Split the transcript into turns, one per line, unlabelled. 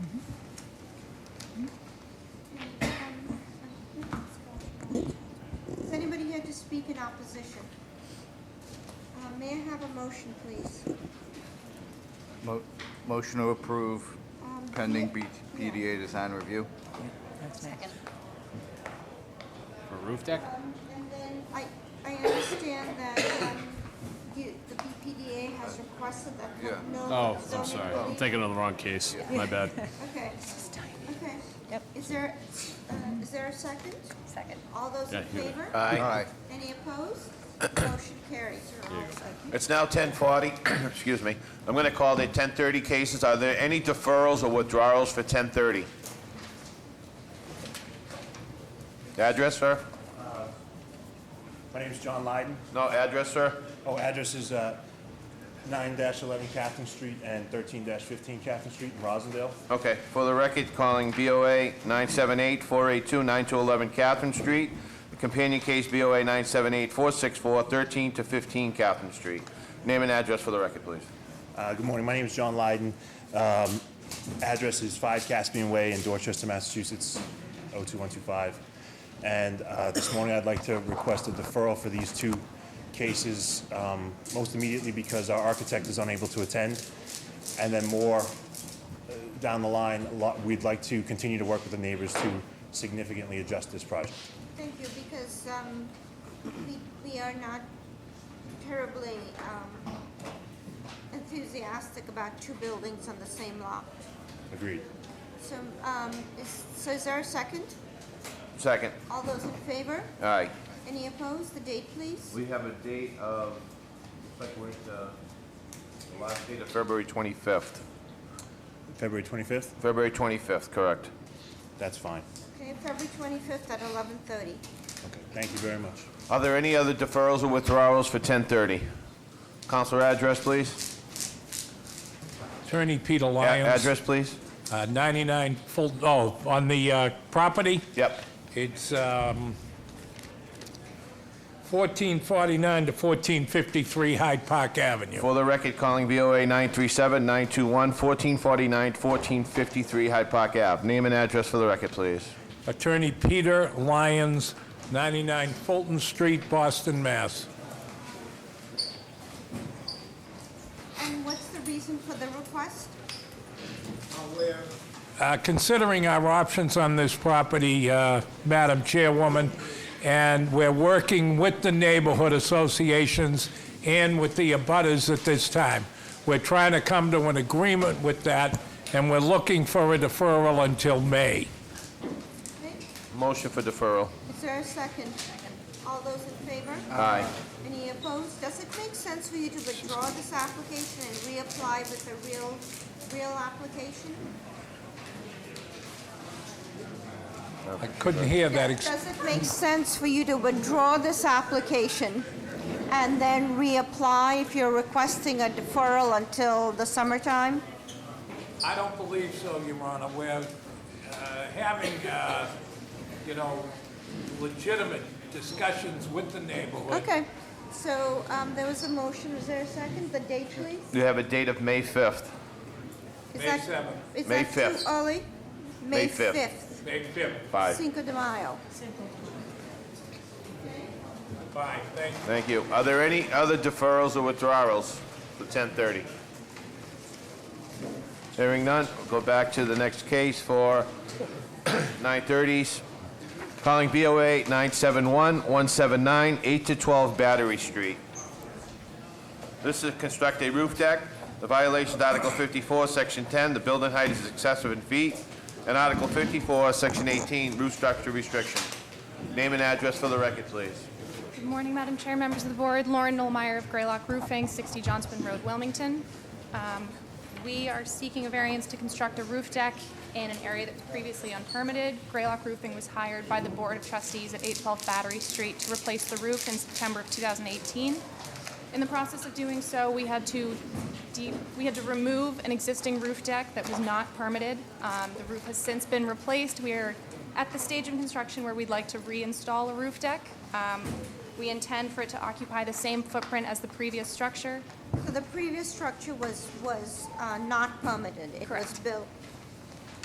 speak in opposition? Uh, May I have a motion, please?
Mo- Motion to approve
Um,
pending
yeah,
B- PDA design review.
That's next.
For roof deck?
Um, And then I, I understand that um, you- the BPDA has requested that
Yeah.
no.
Oh, I'm
zoning
sorry. I'm
relief.
thinking of the wrong case. My bad.
Okay, okay.
Yep.
Is there, uh, is there a second?
Second.
All those in
Yeah, here.
favor?
Aye.
Any opposed? Motion carries. You're all set.
It's now 10:40, excuse me. I'm going to call the 10:30 cases. Are there any deferrals or withdrawals for 10:30? Address, sir?
My name is John Lyden.
No, address, sir?
Oh, address is nine eleven Catherine Street and thirteen fifteen Catherine Street in Rosendale.
Okay, for the record, calling BOA 978-482-9211 Catherine Street, companion case BOA 978-464-13 to 15 Catherine Street. Name and address for the record, please.
Uh, Good morning, my name is John Lyden. Um, Address is 5 Caspian Way in Dorchester, Massachusetts, 02125. And uh, this morning, I'd like to request a deferral for these two cases, um, most immediately because our architect is unable to attend, and then more uh, down the line, a lot- we'd like to continue to work with the neighbors to significantly adjust this project.
Thank you, because um, we we are not terribly um, enthusiastic about two buildings on the same lot.
Agreed.
So, um, is- so is there a second?
Second.
All those in favor?
All right.
Any opposed? The date, please?
We have a date of, looks like we're at, uh, the last date of February 25th.
February 25th?
February 25th, correct.
That's fine.
Okay, February 25th at 11:30.
Okay, thank you very much.
Are there any other deferrals or withdrawals for 10:30? Counselor, address, please.
Attorney Peter
A-
Lyons,
Address, please.
uh, 99 Full, oh, on the uh, property,
Yep.
it's um, 1449 to 1453 Hyde Park Avenue.
For the record, calling BOA 937-921-1449-1453 Hyde Park Ave. Name and address for the record, please.
Attorney Peter Lyons, 99 Fulton Street, Boston, Mass.
And what's the reason for the request?
Uh, Considering our options on this property, uh, Madam Chairwoman, and we're working with the neighborhood associations and with the abutters at this time. We're trying to come to an agreement with that, and we're looking for a deferral until May.
Okay,
Motion for deferral.
Is there a second? All those in favor?
Aye.
Any opposed? Does it make sense for you to withdraw this application and reapply with a real, real application?
I couldn't hear that. ex-
Does it make sense for you to withdraw this application and then reapply if you're requesting a deferral until the summertime?
I don't believe so, Your Honor. We're uh, having, uh, you know, legitimate discussions with the neighborhood.
Okay, so um, there was a motion, is there a second? The date, please?
You have a date of May 5th.
Is
May
that-
7th.
Is
May
that too
5th.
early?
May 5th.
May 5th.
Bye.
Cinco de Mayo.
Bye, thank you.
Thank you. Are there any other deferrals or withdrawals for 10:30? Hearing none, we'll go back to the next case for 9:30s. Calling BOA 971-179, 8 to 12 Battery Street. This is construct a roof deck. The violation is Article 54, Section 10, the building height is excessive in feet, and Article 54, Section 18, roof structure restriction. Name and address for the record, please.
Good morning, Madam Chair, members of the board. Lauren Nolmeyer of Graylock Roofing, 60 Johnson Road, Wilmington. Um, We are seeking a variance to construct a roof deck in an area that was previously unpermitted. Graylock Roofing was hired by the Board of Trustees at 812 Battery Street to replace the roof in September of 2018. In the process of doing so, we had to de- we had to remove an existing roof deck that was not permitted. Um, the roof has since been replaced. We are at the stage of construction where we'd like to reinstall a roof deck. Um, we intend for it to occupy the same footprint as the previous structure.
So the previous structure was, was uh, not permitted? It was
Correct.
built